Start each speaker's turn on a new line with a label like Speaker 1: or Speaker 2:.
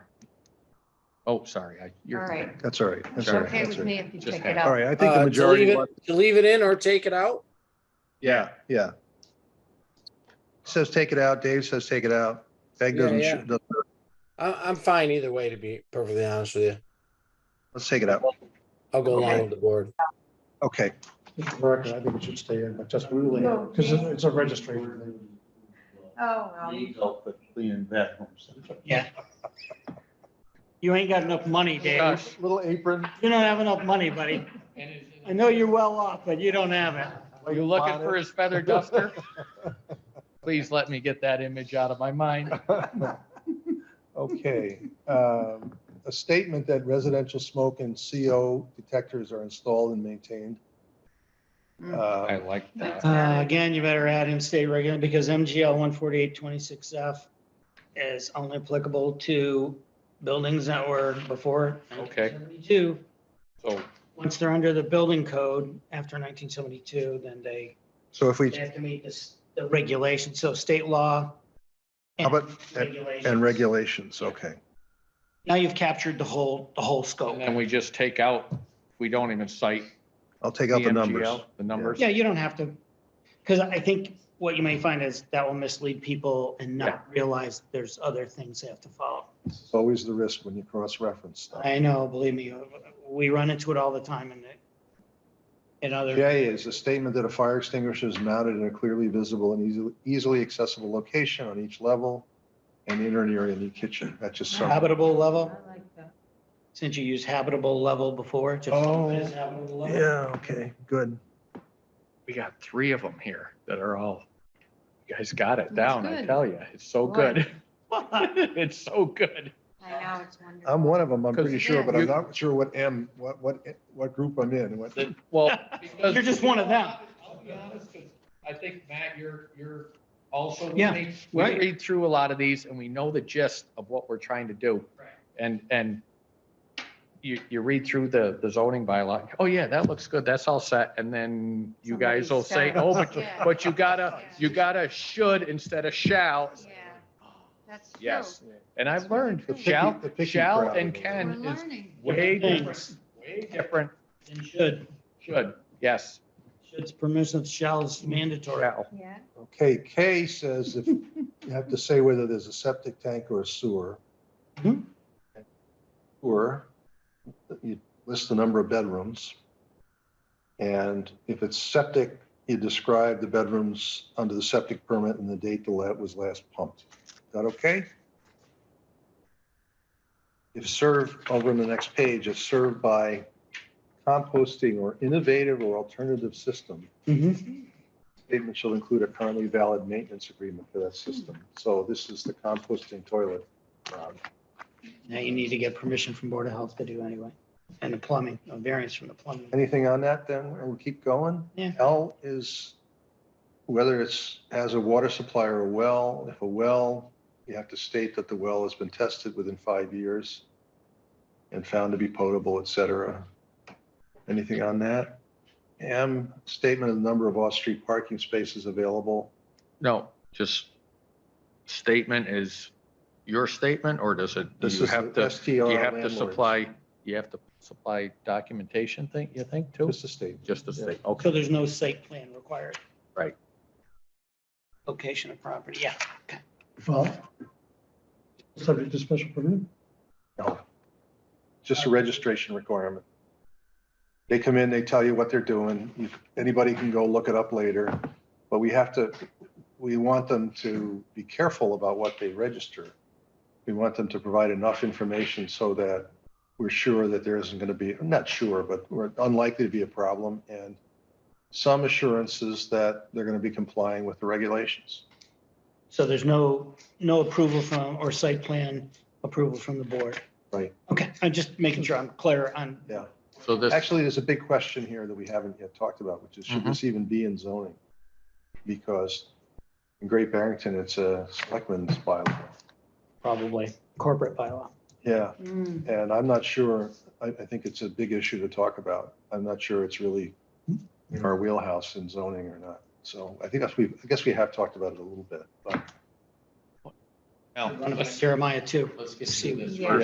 Speaker 1: Oh, sorry. I-
Speaker 2: All
Speaker 1: you're-
Speaker 2: right.
Speaker 3: That's all right. That's
Speaker 2: It's
Speaker 3: all right.
Speaker 2: okay
Speaker 3: That's
Speaker 2: with
Speaker 3: all right.
Speaker 2: me if you
Speaker 1: Just
Speaker 2: take it
Speaker 3: All
Speaker 2: out.
Speaker 3: right, I think the
Speaker 4: Uh, to leave
Speaker 3: majority,
Speaker 4: it- To leave it in or take it out?
Speaker 1: Yeah,
Speaker 3: yeah. Says take it out. Dave says take it out. Peg
Speaker 4: Yeah,
Speaker 3: doesn't,
Speaker 4: yeah.
Speaker 3: doesn't-
Speaker 4: I, I'm fine either way, to be perfectly honest with you.
Speaker 3: let's take it out.
Speaker 4: I'll go along
Speaker 2: Okay.
Speaker 4: with the board.
Speaker 3: Okay,
Speaker 5: Mr. Morocco, I think it should stay in, but just really,
Speaker 2: No.
Speaker 5: because it's a registration.
Speaker 2: Oh, well.
Speaker 6: These all put clean bathrooms.
Speaker 7: Yeah. You ain't got enough money, Dave.
Speaker 1: Gosh.
Speaker 5: Little apron.
Speaker 7: You don't have enough money, buddy. I know you're well
Speaker 5: uh,
Speaker 7: off, but you don't have it.
Speaker 1: Are you looking for his feather duster? Please let me get that image out of my mind.
Speaker 3: okay. Um, A statement that residential smoke and CO detectors are installed and maintained.
Speaker 2: Hmm.
Speaker 1: I
Speaker 3: Uh,
Speaker 1: like that.
Speaker 7: Uh, again, you better add in state regular because MGL one forty-eight twenty-six F is only applicable to buildings that were before.
Speaker 1: Okay.
Speaker 7: 1972.
Speaker 1: So,
Speaker 7: once they're under the building code after nineteen seventy-two, then they
Speaker 3: So if we,
Speaker 7: they have to meet this, the regulation, so state law.
Speaker 3: How about- and
Speaker 7: regulations.
Speaker 3: regulations, okay.
Speaker 7: Now you've captured the whole, the whole scope.
Speaker 1: and then we just take out, we don't even cite
Speaker 3: I'll take out the numbers.
Speaker 1: BMGL, the numbers.
Speaker 7: Yeah, you don't have to, because I think what you may find is that will mislead people and not realize there's other things they have to follow.
Speaker 3: It's always the risk when you cross-reference stuff.
Speaker 7: I know, believe me, we run into it all the time in, the- in other.
Speaker 3: J is a statement that a fire extinguisher is mounted in a clearly visible and easily, easily accessible location on each level and in or near any kitchen. That just sums.
Speaker 7: Habitable level,
Speaker 2: I like that.
Speaker 7: since you used habitable level before, just.
Speaker 3: Oh,
Speaker 7: it is habitable level.
Speaker 3: okay, good.
Speaker 1: We got three of them here that are all, you guys got it down, I
Speaker 2: good.
Speaker 1: tell you. It's so
Speaker 2: Boy.
Speaker 1: good. It's so good.
Speaker 2: I know, it's wonderful.
Speaker 3: I'm one of them, I'm pretty
Speaker 1: Because-
Speaker 3: sure, but
Speaker 1: You-
Speaker 3: I'm not sure what M, what, what, what group I'm in. and what-
Speaker 1: Well.
Speaker 7: You're just one of them.
Speaker 1: I'll be honest, 'cause I think, Matt, you're, you're also. with
Speaker 7: Yeah,
Speaker 1: me. We
Speaker 7: right.
Speaker 1: read through a lot of these and we know the gist of what we're trying to do.
Speaker 7: Right.
Speaker 1: And, and you, you read through the, the zoning bylaw, oh yeah, that looks good, that's all set. And then you
Speaker 2: Somebody
Speaker 1: guys will say,
Speaker 2: stops.
Speaker 1: oh, but,
Speaker 2: Yeah.
Speaker 1: but you gotta, you gotta should instead of shall.
Speaker 2: Yeah, that's true.
Speaker 1: Yes. And I've
Speaker 2: That's really
Speaker 1: learned
Speaker 2: good.
Speaker 1: shall,
Speaker 3: The picky
Speaker 1: shall
Speaker 3: crowd.
Speaker 1: and
Speaker 2: We're
Speaker 1: can is
Speaker 2: learning.
Speaker 1: way different,
Speaker 7: Thanks.
Speaker 1: way different,
Speaker 7: And should,
Speaker 1: should, yes,
Speaker 7: should's permissive, shall is mandatory.
Speaker 1: shall.
Speaker 2: Yeah.
Speaker 3: Okay, K says if, you have to say whether there's a septic tank or a sewer.
Speaker 7: Mhm.
Speaker 3: Sewer, you list the number of bedrooms. And if it's septic, you describe the bedrooms under the septic permit and the date the let was last pumped. Is That okay? If served, over on the next page, it's served by composting or innovative or alternative system
Speaker 7: Mhm.
Speaker 3: statement shall include a currently valid maintenance agreement for that system. So this is the composting toilet. Uh, Rob.
Speaker 7: Now you need to get permission from Board of Health to do anyway, and the plumbing, a variance from the plumbing.
Speaker 3: Anything on that then? We'll keep going.
Speaker 7: Yeah.
Speaker 3: L is whether it's as a water supply or a well. If a well, you have to state that the well has been tested within five years and found to be potable, et cetera. Anything on that? M, statement of the number of off-street parking spaces available.
Speaker 1: No, just statement is your statement, or does it, do
Speaker 3: This
Speaker 1: you
Speaker 3: is
Speaker 1: have
Speaker 3: the
Speaker 1: to, do
Speaker 3: STR
Speaker 1: you have to
Speaker 3: landlords.
Speaker 1: supply, you have to supply documentation thing, you think, too?
Speaker 3: Just a statement.
Speaker 1: Just to say,
Speaker 7: So
Speaker 1: okay,
Speaker 7: there's no site plan required.
Speaker 1: Right.
Speaker 7: Location of property, yeah.
Speaker 5: Well, Subject to special permit.
Speaker 3: No. Just a registration requirement. They come in, they tell you what they're doing. You- Anybody can go look it up later. But we have to, we want them to be careful about what they register. We want them to provide enough information so that we're sure that there isn't going to be, not sure, but we're unlikely to be a problem. And some assurances that they're going to be complying with the regulations.
Speaker 7: So there's no, no approval from, or site plan approval from the board.
Speaker 3: Right.
Speaker 7: Okay, I'm just making sure I'm clear on.
Speaker 3: Yeah.
Speaker 1: so this,
Speaker 3: Actually, there's a big question here that we haven't yet talked about, which is should this even be in zoning? Because in Great Barrington, it's a selectman's bylaw.
Speaker 7: Probably corporate bylaw.
Speaker 3: Yeah,
Speaker 2: Mm.
Speaker 3: and I'm not sure, I, I think it's a big issue to talk about. I'm not sure it's really in our wheelhouse in zoning or not. So I think that's, we, I guess we have talked about it a little bit, but
Speaker 1: Al,
Speaker 7: One of
Speaker 1: let's,
Speaker 7: Jeremiah too.
Speaker 1: let's get
Speaker 7: See
Speaker 1: through this
Speaker 2: Yeah.
Speaker 1: first.